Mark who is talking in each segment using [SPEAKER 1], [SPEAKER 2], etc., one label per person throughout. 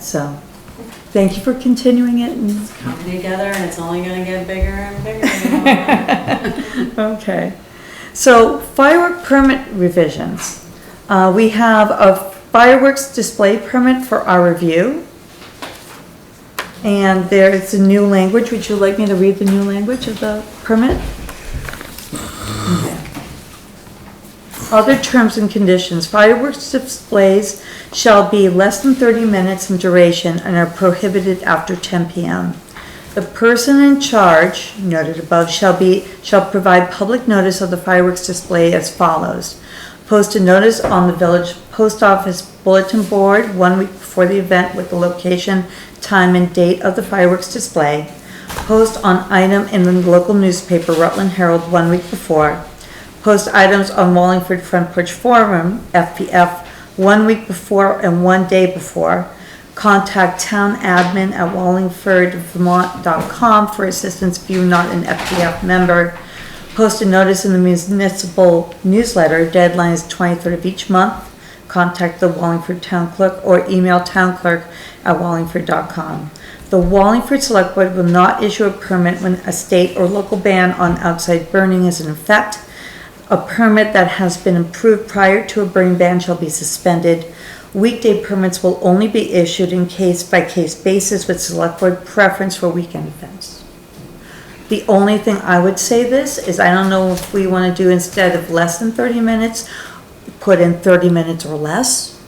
[SPEAKER 1] so thank you for continuing it and,
[SPEAKER 2] come together and it's only gonna get bigger and bigger.
[SPEAKER 1] okay. So firework permit revisions. Uh, we have a fireworks display permit for our review. And there is a new language. Would you like me to read the new language of the permit? Other terms and conditions, fireworks displays shall be less than thirty minutes in duration and are prohibited after ten PM. The person in charge, noted above, shall be, shall provide public notice of the fireworks display as follows. Post a notice on the village post office bulletin board one week before the event with the location, time, and date of the fireworks display. Post on item in the local newspaper Rutland Herald one week before. Post items on Wallingford Front Porch Forum, FPF, one week before and one day before. Contact town admin at wallingfordvermont.com for assistance if you're not an FPF member. Post a notice in the municipal newsletter, deadline is twenty-third of each month. Contact the Wallingford Town Clerk or email townclerk@wallingford.com. The Wallingford Select Board will not issue a permit when a state or local ban on outside burning is in effect. A permit that has been approved prior to a burning ban shall be suspended. Weekday permits will only be issued in case-by-case basis with select board preference for weekend events. The only thing I would say this is I don't know if we wanna do instead of less than thirty minutes, put in thirty minutes or less.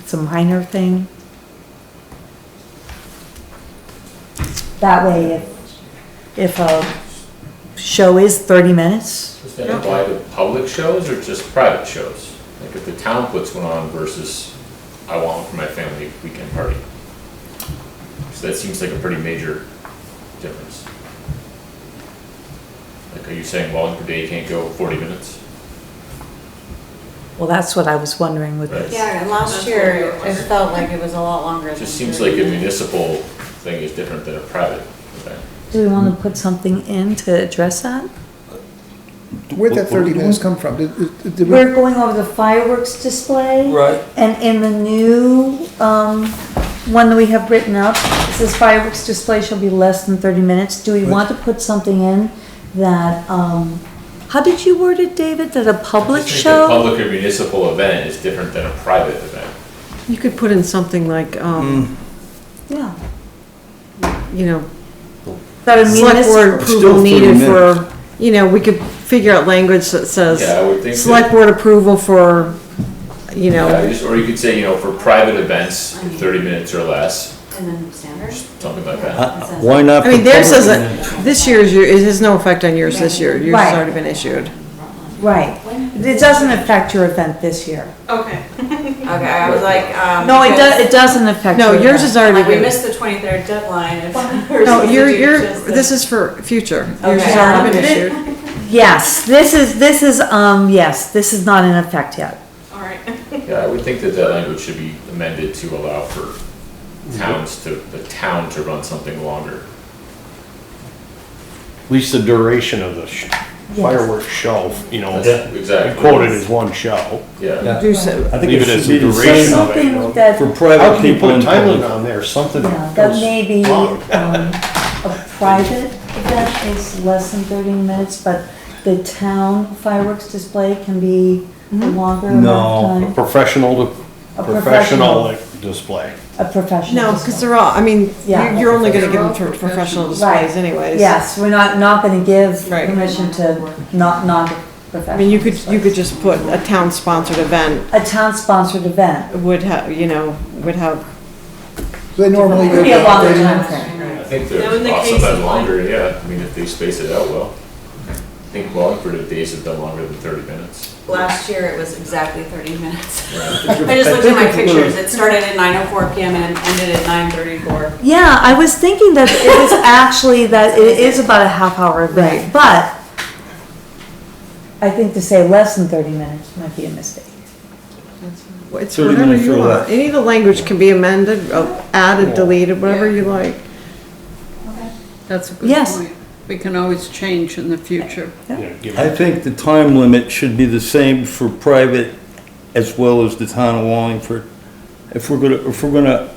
[SPEAKER 1] It's a minor thing. That way, if, if a show is thirty minutes,
[SPEAKER 3] Does that apply to public shows or just private shows? Like if the town puts one on versus I want one for my family weekend party? So that seems like a pretty major difference. Like, are you saying Wallingford Day can't go forty minutes?
[SPEAKER 1] Well, that's what I was wondering with
[SPEAKER 3] Right.
[SPEAKER 1] this.
[SPEAKER 2] Yeah, and last year, it felt like it was a lot longer.
[SPEAKER 3] It
[SPEAKER 2] than
[SPEAKER 3] just seems like a
[SPEAKER 2] 30.
[SPEAKER 3] municipal thing is different than a private event.
[SPEAKER 1] Do we want to put something in to address that?
[SPEAKER 4] Where'd that thirty minutes come from? Did- did- did we-
[SPEAKER 1] We're going over the fireworks display.
[SPEAKER 5] Right.
[SPEAKER 1] And in the new, um, one that we have written up, it says fireworks display shall be less than thirty minutes. Do we want to put something in that, um, how did you word it, David? That a
[SPEAKER 3] I
[SPEAKER 1] public
[SPEAKER 3] just think
[SPEAKER 1] show?
[SPEAKER 3] that Public or municipal event is different than a private event.
[SPEAKER 6] You could put in something like, um,
[SPEAKER 1] Yeah.
[SPEAKER 3] Mm.
[SPEAKER 6] you know,
[SPEAKER 1] That a
[SPEAKER 6] select board
[SPEAKER 1] municipal,
[SPEAKER 6] approval
[SPEAKER 5] Still 30
[SPEAKER 6] needed for,
[SPEAKER 5] minutes.
[SPEAKER 6] you know, we could figure out language that says.
[SPEAKER 3] Yeah, I would think
[SPEAKER 6] Select
[SPEAKER 3] that-
[SPEAKER 6] board approval for, you
[SPEAKER 3] Yeah, you
[SPEAKER 6] know,
[SPEAKER 3] just- Or you could say, you know, for private events, thirty minutes or less,
[SPEAKER 2] And then standards.
[SPEAKER 3] something like that.
[SPEAKER 5] Uh, Why not?
[SPEAKER 6] I mean,
[SPEAKER 5] for
[SPEAKER 6] theirs
[SPEAKER 5] public?
[SPEAKER 6] says that, this year's, your- it has no effect on yours this year, yours
[SPEAKER 1] Right.
[SPEAKER 6] has already been issued.
[SPEAKER 1] right. It doesn't affect your event this year.
[SPEAKER 7] Okay. Okay, I was like, um.
[SPEAKER 1] No, it does,
[SPEAKER 7] because-
[SPEAKER 1] it doesn't affect.
[SPEAKER 6] No,
[SPEAKER 1] your
[SPEAKER 6] yours
[SPEAKER 1] event.
[SPEAKER 6] is already
[SPEAKER 7] Like, we
[SPEAKER 6] been,
[SPEAKER 7] missed the twenty-third deadline. if we're
[SPEAKER 6] no,
[SPEAKER 7] supposed to
[SPEAKER 6] your,
[SPEAKER 7] do
[SPEAKER 6] your,
[SPEAKER 7] just
[SPEAKER 6] this is for future, yours has
[SPEAKER 7] Okay.
[SPEAKER 6] already been issued.
[SPEAKER 1] Yes, this is, this is, um, yes, this is not in effect yet.
[SPEAKER 7] All right.
[SPEAKER 3] Yeah, I would think that that language should be amended to allow for towns to, the town to run something longer.
[SPEAKER 8] At least the duration of the sh- fireworks show, you know,
[SPEAKER 3] That's- Exactly.
[SPEAKER 8] quoted as one show.
[SPEAKER 3] Yeah,
[SPEAKER 6] Do so-
[SPEAKER 5] I think
[SPEAKER 8] Leave
[SPEAKER 5] it
[SPEAKER 8] it
[SPEAKER 5] should
[SPEAKER 8] as the
[SPEAKER 5] be the same.
[SPEAKER 8] duration of it. you
[SPEAKER 1] Something
[SPEAKER 8] know.
[SPEAKER 1] that,
[SPEAKER 5] For
[SPEAKER 8] How
[SPEAKER 5] private
[SPEAKER 8] can you
[SPEAKER 5] people
[SPEAKER 8] put a
[SPEAKER 5] and
[SPEAKER 8] time
[SPEAKER 5] public.
[SPEAKER 8] limit on there? Something
[SPEAKER 1] yeah, that may be,
[SPEAKER 8] goes
[SPEAKER 1] um,
[SPEAKER 8] wrong.
[SPEAKER 1] a private event is less than thirty minutes, but the town fireworks display can be a longer amount
[SPEAKER 5] No.
[SPEAKER 8] A
[SPEAKER 1] of time.
[SPEAKER 8] professional,
[SPEAKER 1] A professional.
[SPEAKER 8] professional like, display.
[SPEAKER 1] A professional.
[SPEAKER 6] No, because
[SPEAKER 1] display.
[SPEAKER 6] they're all, I mean,
[SPEAKER 1] Yeah.
[SPEAKER 6] you're, you're only gonna give them to professional displays
[SPEAKER 1] Right,
[SPEAKER 6] anyways.
[SPEAKER 1] yes, we're not, not gonna give
[SPEAKER 6] Right.
[SPEAKER 1] permission to not, not
[SPEAKER 6] I mean,
[SPEAKER 1] professional
[SPEAKER 6] you could, you could
[SPEAKER 1] displays.
[SPEAKER 6] just put a town-sponsored event
[SPEAKER 1] A town-sponsored event,
[SPEAKER 6] would have, you know, would have,
[SPEAKER 4] Do they normally
[SPEAKER 1] It'd
[SPEAKER 4] go
[SPEAKER 1] be a
[SPEAKER 4] down
[SPEAKER 1] longer
[SPEAKER 4] thirty
[SPEAKER 1] time
[SPEAKER 4] minutes?
[SPEAKER 1] frame.
[SPEAKER 3] I think
[SPEAKER 7] Now, in
[SPEAKER 3] they're
[SPEAKER 7] the
[SPEAKER 3] lots of
[SPEAKER 7] case
[SPEAKER 3] that
[SPEAKER 7] of
[SPEAKER 3] longer, yeah, I mean, if they space it out well. I think Wallingford of days have been longer than thirty minutes.
[SPEAKER 2] Last year, it was exactly thirty minutes.
[SPEAKER 3] Yeah.
[SPEAKER 2] I just looked at my pictures. It started at nine oh four PM and ended at nine thirty-four.
[SPEAKER 1] Yeah, I was thinking that it was actually that it is about a half hour event,
[SPEAKER 6] Right.
[SPEAKER 1] but I think to say less than thirty minutes might be a mistake.
[SPEAKER 6] it's
[SPEAKER 5] 30
[SPEAKER 6] whatever
[SPEAKER 5] minutes
[SPEAKER 6] you
[SPEAKER 5] or
[SPEAKER 6] want.
[SPEAKER 5] less.
[SPEAKER 6] Any of the language can be amended, uh, added, deleted, whatever you like.
[SPEAKER 9] That's a good
[SPEAKER 1] Yes.
[SPEAKER 9] point. We can always change in the future.
[SPEAKER 8] you know, give
[SPEAKER 5] I
[SPEAKER 8] it-
[SPEAKER 5] think the time limit should be the same for private as well as the town of Wallingford. If we're gonna, if we're gonna